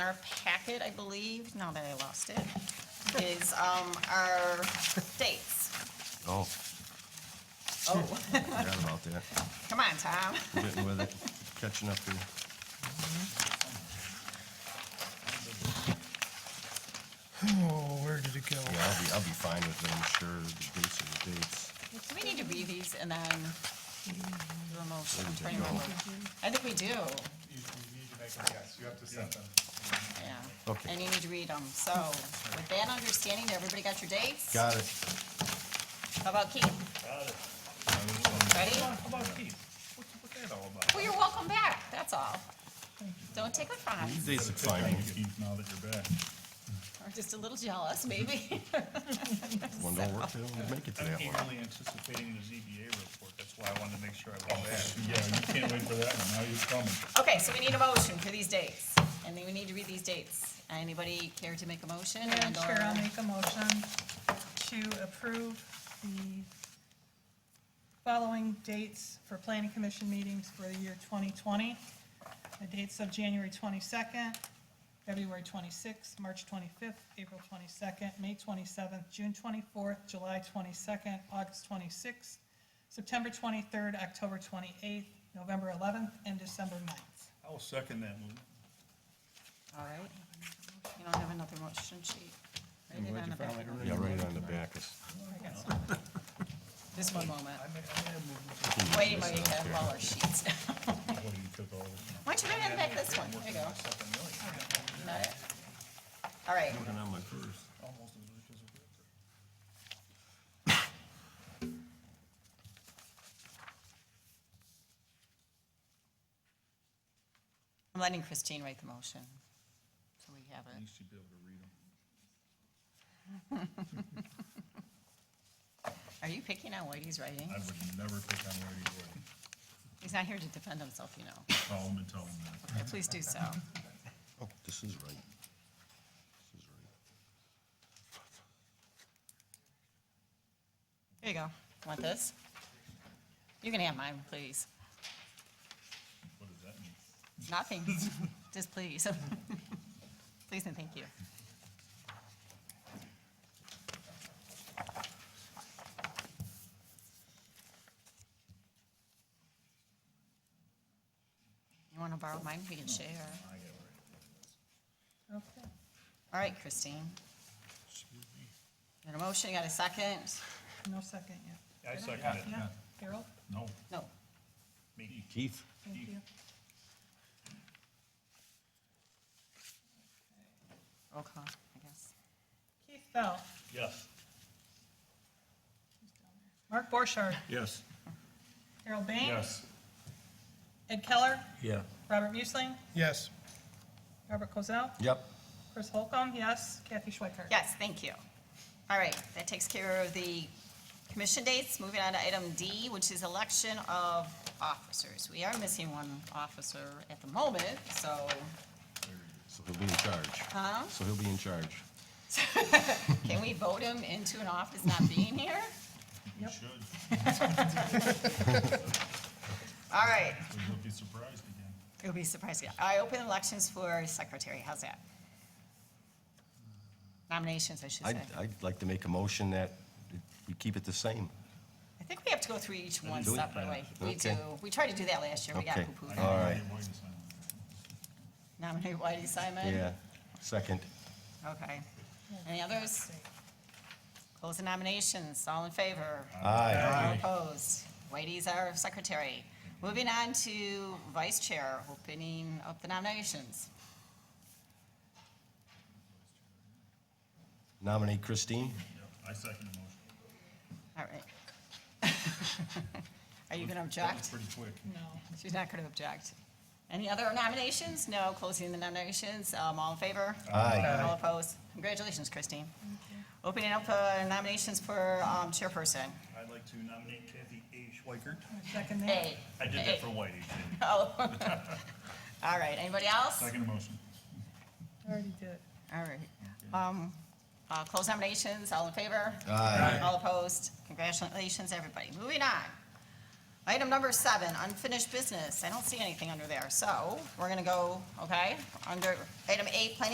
our packet, I believe, now that I lost it, is, um, our dates. Oh, Oh, forgot about that. come on, Tom. We're Getting with it, catching up here. Oh, where did it go? Yeah, I'll be, I'll be fine with it, I'm sure, the dates are the dates. Do we need to read these and then do a motion? I'm trying to Maybe take it all. remember. I think we do, You you need to make a guess, you have to set them. yeah. Okay. And you need to read them. So with that understanding, everybody got your dates? Got it. How about Keith? Ready? Come on, come on, Keith, what's, what's that all about? Well, you're welcome back, that's all. Don't take it from us. These dates are fine, Keith, now that you're back. We're just a little jealous, maybe. one don't work, they don't make it to I'm that one. eagerly anticipating the ZBA report, that's why I wanted to make sure I was back. Oh, Yeah, you can't wait for that, one. now you're coming. Okay, so we need a motion for these dates, and then we need to read these dates. Anybody care to make a motion? Madam and uh, or- Chair, I'll make a motion to approve the following dates for planning commission meetings for the year 2020. The dates of January 22nd, February 26th, March 25th, April 22nd, May 27th, June 24th, July 22nd, August 26th, September 23rd, October 28th, November 11th, and December 9th. I'll second that move. All right. You don't have another motion sheet. Write it on the back. Yeah, right on the back. I got some. Just one moment. I made, I made a move. Wait, wait, we have all our sheets. Well, you took all of them. Why don't you go ahead and back this one? There you go. Second million. Got it? All right, Working on my first. Almost as rich as a realtor. I'm letting Christine write the motion, so we have You it. should be able to read them. Are you picking on what he's writing? I would never pick on Randy Gordon. He's not here to defend himself, you know. Call him and tell him that. Yeah, Please do so. Oh, this is right. This is right. Here you go. Want this? You can have mine, please. What does that mean? Nothing, just please. Please and thank you. You want to borrow mine? We can share. Okay. All right, Christine. Got a motion, you got a second? No second yet. I second it. Yeah, Harold, No, No. me. Keith? thank you. Roll call, I guess. Keith Bell. Yes. Mark Borchardt. Yes. Harold Bain. Ed Keller. Yeah. Robert Muesling. Yes. Robert Cosell. Yep. Chris Holcomb, yes. Kathy Schweikart. Yes, thank you. All right, that takes care of the commission dates. Moving on to item D, which is election of officers. We are missing one officer at the moment, so, So he'll be in charge. huh? So he'll be in charge. Can we vote him into an office not being here? You should. All right, You'll be surprised again. it'll be surprising. I open elections for secretary, how's that? Nominations, I should say. I'd, I'd like to make a motion that we keep it the same. I think we have to go through each one Do we? separately. We do, Okay. we tried to do that last year, we got Okay. Uh, poo-pooed. All right. Hey, wait a second. Nominate Whitey Simon? Yeah, second. Okay. Any others? Close the nominations. All in favor? Aye. All opposed? Whitey's our secretary. Moving on to vice chair, opening up the nominations. Nominate Christine? Yeah, I second the motion. All right. Are you going to That was object? Pretty quick. No. She's not going to object. Any other nominations? No, closing the nominations. Um, All in favor? Aye. All opposed? Congratulations, Christine. Opening up uh, nominations for um, chairperson. I'd like to nominate Kathy A. Schweikert. Second that. A. I did A. that for Whitey. didn't I? Oh. All right, anybody else? Second motion. Already did it. All right. Um, uh, Close nominations, all in favor? Aye. All opposed? Congratulations, everybody. Moving on. Item number seven, unfinished business. I don't see anything under there, so we're gonna go, okay? Under item eight, planning